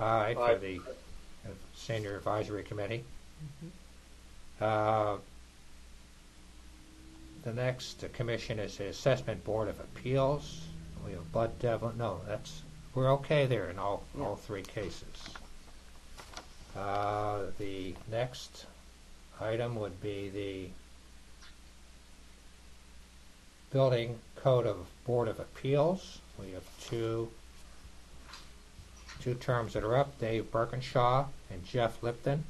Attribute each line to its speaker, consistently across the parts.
Speaker 1: Aye,
Speaker 2: Aye.
Speaker 1: for the uh, Senior Advisory Committee. Uh, The next commission is the Assessment Board of Appeals. We have Bud Devlin, no, that's, we're okay there in all, all three cases. Uh, The next item would be the Building Code of Board of Appeals. We have two Two terms that are up, Dave Birkinshaw and Jeff Lipton.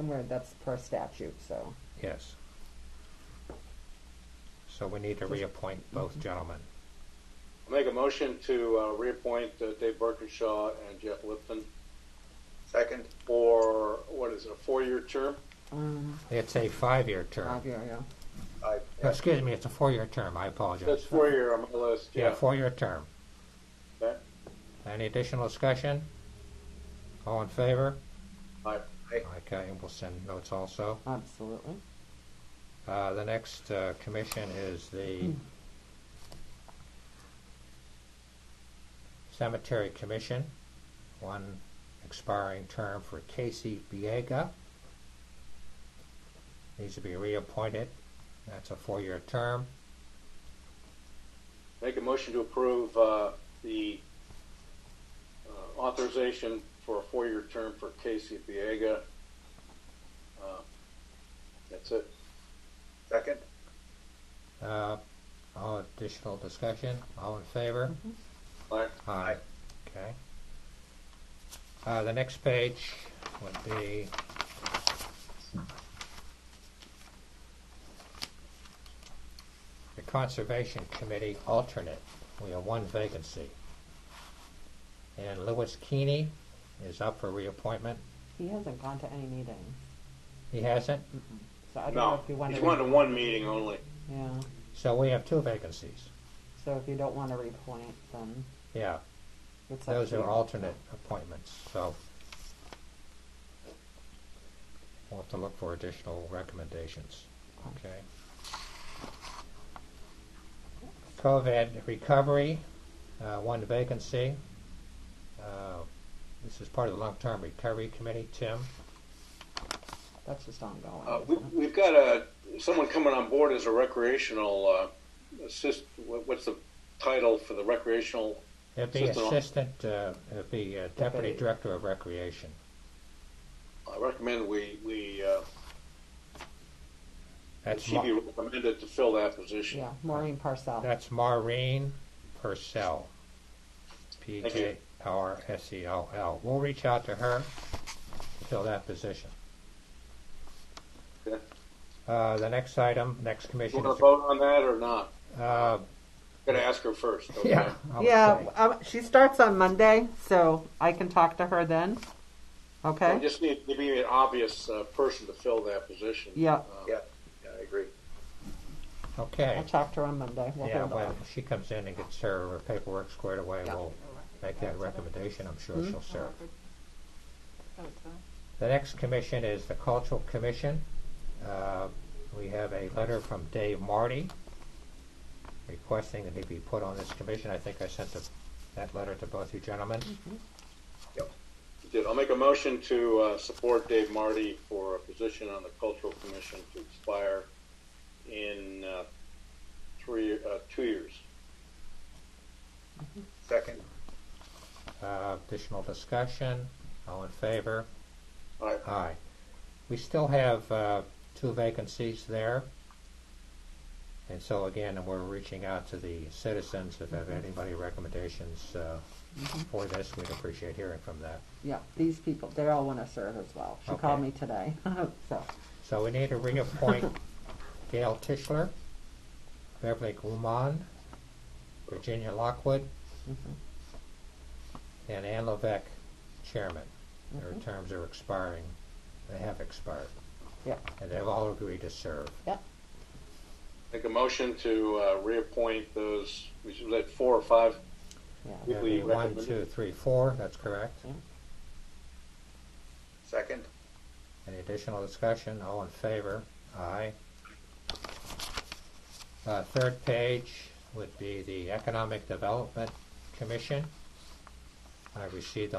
Speaker 3: I'm gonna, that's per statute, so.
Speaker 1: Yes. So we need to reappoint
Speaker 2: Mm-hmm.
Speaker 1: both gentlemen.
Speaker 2: I'll make a motion to uh, reappoint uh, Dave Birkinshaw and Jeff Lipton
Speaker 4: Second.
Speaker 2: for, what is it, a four-year term?
Speaker 3: Um,
Speaker 1: It's a five-year term.
Speaker 3: five year, yeah.
Speaker 4: Aye.
Speaker 1: Oh, Excuse me, it's a four-year term, I apologize.
Speaker 2: That's four-year on my list,
Speaker 1: Yeah,
Speaker 2: yeah.
Speaker 1: four-year term.
Speaker 2: Okay.
Speaker 1: Any additional discussion? All in favor?
Speaker 2: Aye.
Speaker 1: Okay, and we'll send notes also.
Speaker 3: Absolutely.
Speaker 1: Uh, The next uh, commission is the Cemetery Commission, one expiring term for Casey Biega. Needs to be reappointed. That's a four-year term.
Speaker 2: Make a motion to approve uh, the uh, authorization for a four-year term for Casey Biega. Uh, That's it.
Speaker 4: Second.
Speaker 1: Uh, All additional discussion, all in favor?
Speaker 2: Aye.
Speaker 1: Aye. Okay. Uh, the next page would be the Conservation Committee alternate. We have one vacancy. And Louis Keeney is up for reappointment.
Speaker 3: He hasn't gone to any meetings,
Speaker 1: He hasn't,
Speaker 3: so I don't know
Speaker 2: No,
Speaker 3: if you want to.
Speaker 2: he's one to one meeting only.
Speaker 3: Yeah,
Speaker 1: so we have two vacancies.
Speaker 3: so if you don't want to reappoint, then
Speaker 1: Yeah,
Speaker 3: it's up
Speaker 1: those
Speaker 3: to
Speaker 1: are
Speaker 3: you.
Speaker 1: alternate appointments, so we'll have to look for additional recommendations. Okay. COVID recovery, uh, one vacancy. Uh, This is part of the long-term recovery committee, Tim.
Speaker 3: That's just ongoing.
Speaker 2: Uh,
Speaker 3: isn't
Speaker 2: we,
Speaker 3: it?
Speaker 2: we've got a someone coming on board as a recreational uh, assist. What, what's the title for the recreational?
Speaker 1: It'd be
Speaker 2: Assistant.
Speaker 1: assistant, uh, it'd be uh, deputy
Speaker 3: Deputy.
Speaker 1: director of recreation.
Speaker 2: I recommend we we uh,
Speaker 1: That's
Speaker 2: she be
Speaker 1: Ma-
Speaker 2: recommended to fill that position.
Speaker 3: Yeah, Maureen Parcell.
Speaker 1: that's Maureen Purcell. P
Speaker 2: Thank
Speaker 1: K
Speaker 2: you.
Speaker 1: R S E L L. We'll reach out to her to fill that position.
Speaker 2: Okay.
Speaker 1: Uh, the next item, next
Speaker 2: You
Speaker 1: commission
Speaker 2: want
Speaker 1: is,
Speaker 2: to vote on that or not?
Speaker 1: uh,
Speaker 2: I'm gonna ask her first. Okay?
Speaker 1: yeah. I would
Speaker 3: Yeah,
Speaker 1: say.
Speaker 3: um, she starts on Monday, so I can talk to her then.
Speaker 2: I
Speaker 3: Okay?
Speaker 2: just need to be an obvious uh, person to fill that position.
Speaker 3: Yeah.
Speaker 2: Uh,
Speaker 4: Yeah, yeah, I agree.
Speaker 1: Okay.
Speaker 3: I'll talk to her on Monday. We'll
Speaker 1: Yeah,
Speaker 3: handle
Speaker 1: when
Speaker 3: it.
Speaker 1: she comes in and gets her her paperwork squared away,
Speaker 3: Yeah.
Speaker 1: we'll make that recommendation, I'm sure
Speaker 3: Mhm.
Speaker 1: she'll serve. The next commission is the Cultural Commission. Uh, We have a letter from Dave Marty requesting that he be put on this commission. I think I sent the- that letter to both you gentlemen.
Speaker 2: you Did I'll make a motion to uh, support Dave Marty for a position on the Cultural Commission to expire in uh, three uh, two years.
Speaker 4: Second.
Speaker 1: Uh, Additional discussion, all in favor?
Speaker 2: All right.
Speaker 1: Aye. We still have uh, two vacancies there. And so again, we're reaching out to the citizens. If have anybody recommendations uh, for this, we'd appreciate hearing from that.
Speaker 3: Yeah, these people, they all want to serve as well. She
Speaker 1: Okay.
Speaker 3: called me today, so.
Speaker 1: So we need to reappoint Gail Tischler, Beverly Guman, Virginia Lockwood,
Speaker 3: Mm-hmm.
Speaker 1: and Ann Levesque, chairman. Their terms are expiring, they have expired,
Speaker 3: Yeah,
Speaker 1: and they've all agreed to serve.
Speaker 3: yeah,
Speaker 2: Make a motion to uh, reappoint those, we should let four or five,
Speaker 3: yeah.
Speaker 1: That'd be
Speaker 2: Quickly
Speaker 1: one,
Speaker 2: recommend-
Speaker 1: two, three, four, that's correct.
Speaker 4: Second.
Speaker 1: Any additional discussion? All in favor? Aye. Uh, third page would be the Economic Development Commission. I received